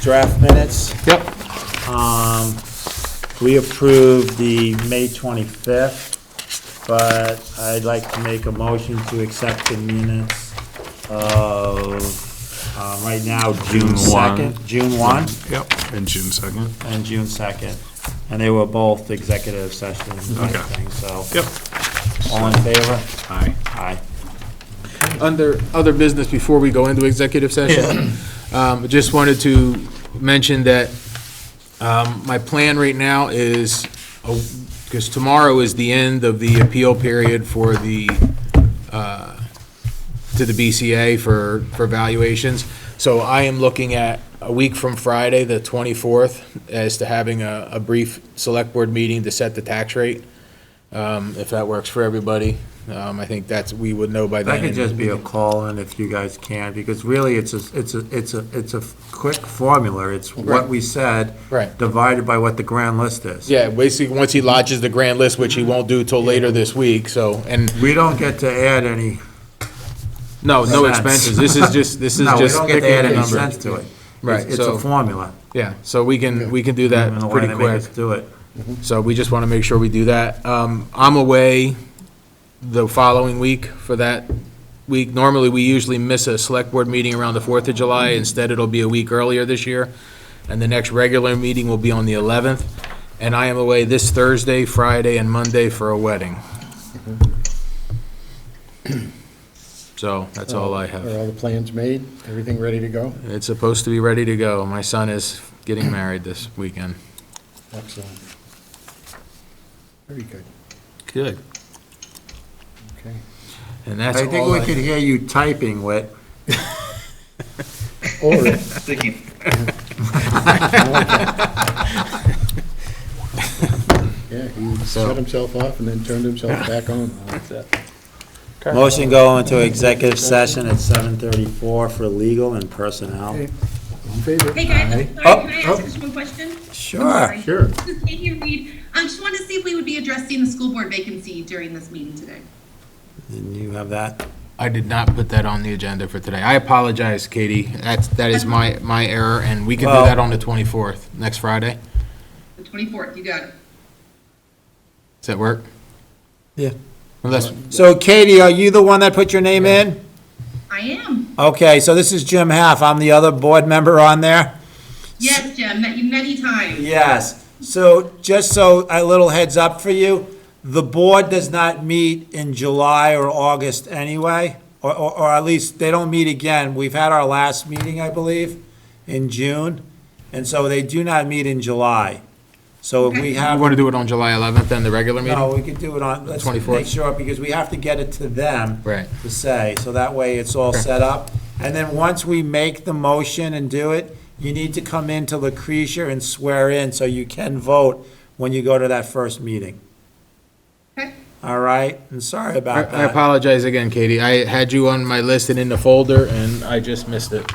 draft minutes. Yep. Um, we approved the May twenty-fifth, but I'd like to make a motion to accept the minutes of, um, right now, June June one. second, June one Yep, and June second. and June second. And they were both executive sessions, I Okay. think, so. Yep. All in favor? Aye. Aye. Under other business, before we go into executive session, um, just wanted to mention that um, my plan right now is, because tomorrow is the end of the appeal period for the, uh, to the BCA for, for valuations. So I am looking at a week from Friday, the 24th, as to having a, a brief select board meeting to set the tax rate, um, if that works for everybody. Um, I think that's, we would know by then. That could just be a call in if you guys can, because really, it's a, it's a, it's a, it's a quick formula. It's what Right. we said. Right. Divided by what the grand list is. Yeah, basically, once he lodges the grand list, which he won't do till later this week, so, and, We don't get to add any, no, no Sense. expenses, this is just, this is no, we just don't get sticking to add the any number. sense to it. Right, It's- It's a so- formula. Yeah, so we can, we can do I that don't know why pretty they make quick, us do it. so we just wanna make sure we do that. Um, I'm away the following week for that week, normally, we usually miss a select board meeting around the Fourth of July, instead it'll be a week earlier this year, and the next regular meeting will be on the eleventh, and I am away this Thursday, Friday, and Monday for a wedding. So, that's all I have. Are all the plans made? Everything ready to go? It's supposed to be ready to go. My son is getting married this weekend. Excellent. Very good, Good. okay. And that's I think all we I, could hear you typing, Whit. Or, Sticky. yeah, he So- shut himself off and then turned himself back on. Motion go into executive session at seven thirty-four for legal and personnel. In favor? Hey guys, I'm Oh, sorry, can I oh. ask just one question? Sure. Sure. This is Katie Reed. I just want to see if we would be addressing the school board vacancy during this meeting today. And you have that? I did not put that on the agenda for today. I apologize, Katie. That's, that is my, my error, and we can do Well- that on the 24th, next Friday. The 24th, you got it. Does that work? Yeah. Unless, So Katie, are you the one that put your name in? I am. Okay, so this is Jim Half. I'm the other board member on there? Yes, Jim, met you many times. Yes. So just so a little heads up for you, the board does not meet in July or August anyway, or, or, or at least they don't meet again. We've had our last meeting, I believe, in June, and so they do not meet in July. So if we you have, want to do it on July 11th, then the regular meeting? no, we could do it on, let's make 24th? sure, because we have to get it to them. Right. to say, so that way it's all set up. And then once we make the motion and do it, you need to come into Lucretia and swear in, so you can vote when you go to that first meeting. Okay. All right? And sorry I about I that. apologize again, Katie. I had you on my list and in the folder, and I just missed it.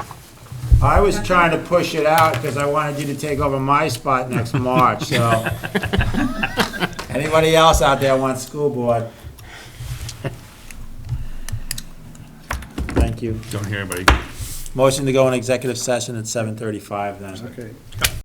I was trying to push it out because I wanted you to take over my spot next March, so. Anybody else out there want school board? Thank you. Don't hear anybody. Motion to go in executive session at seven thirty-five then. Okay.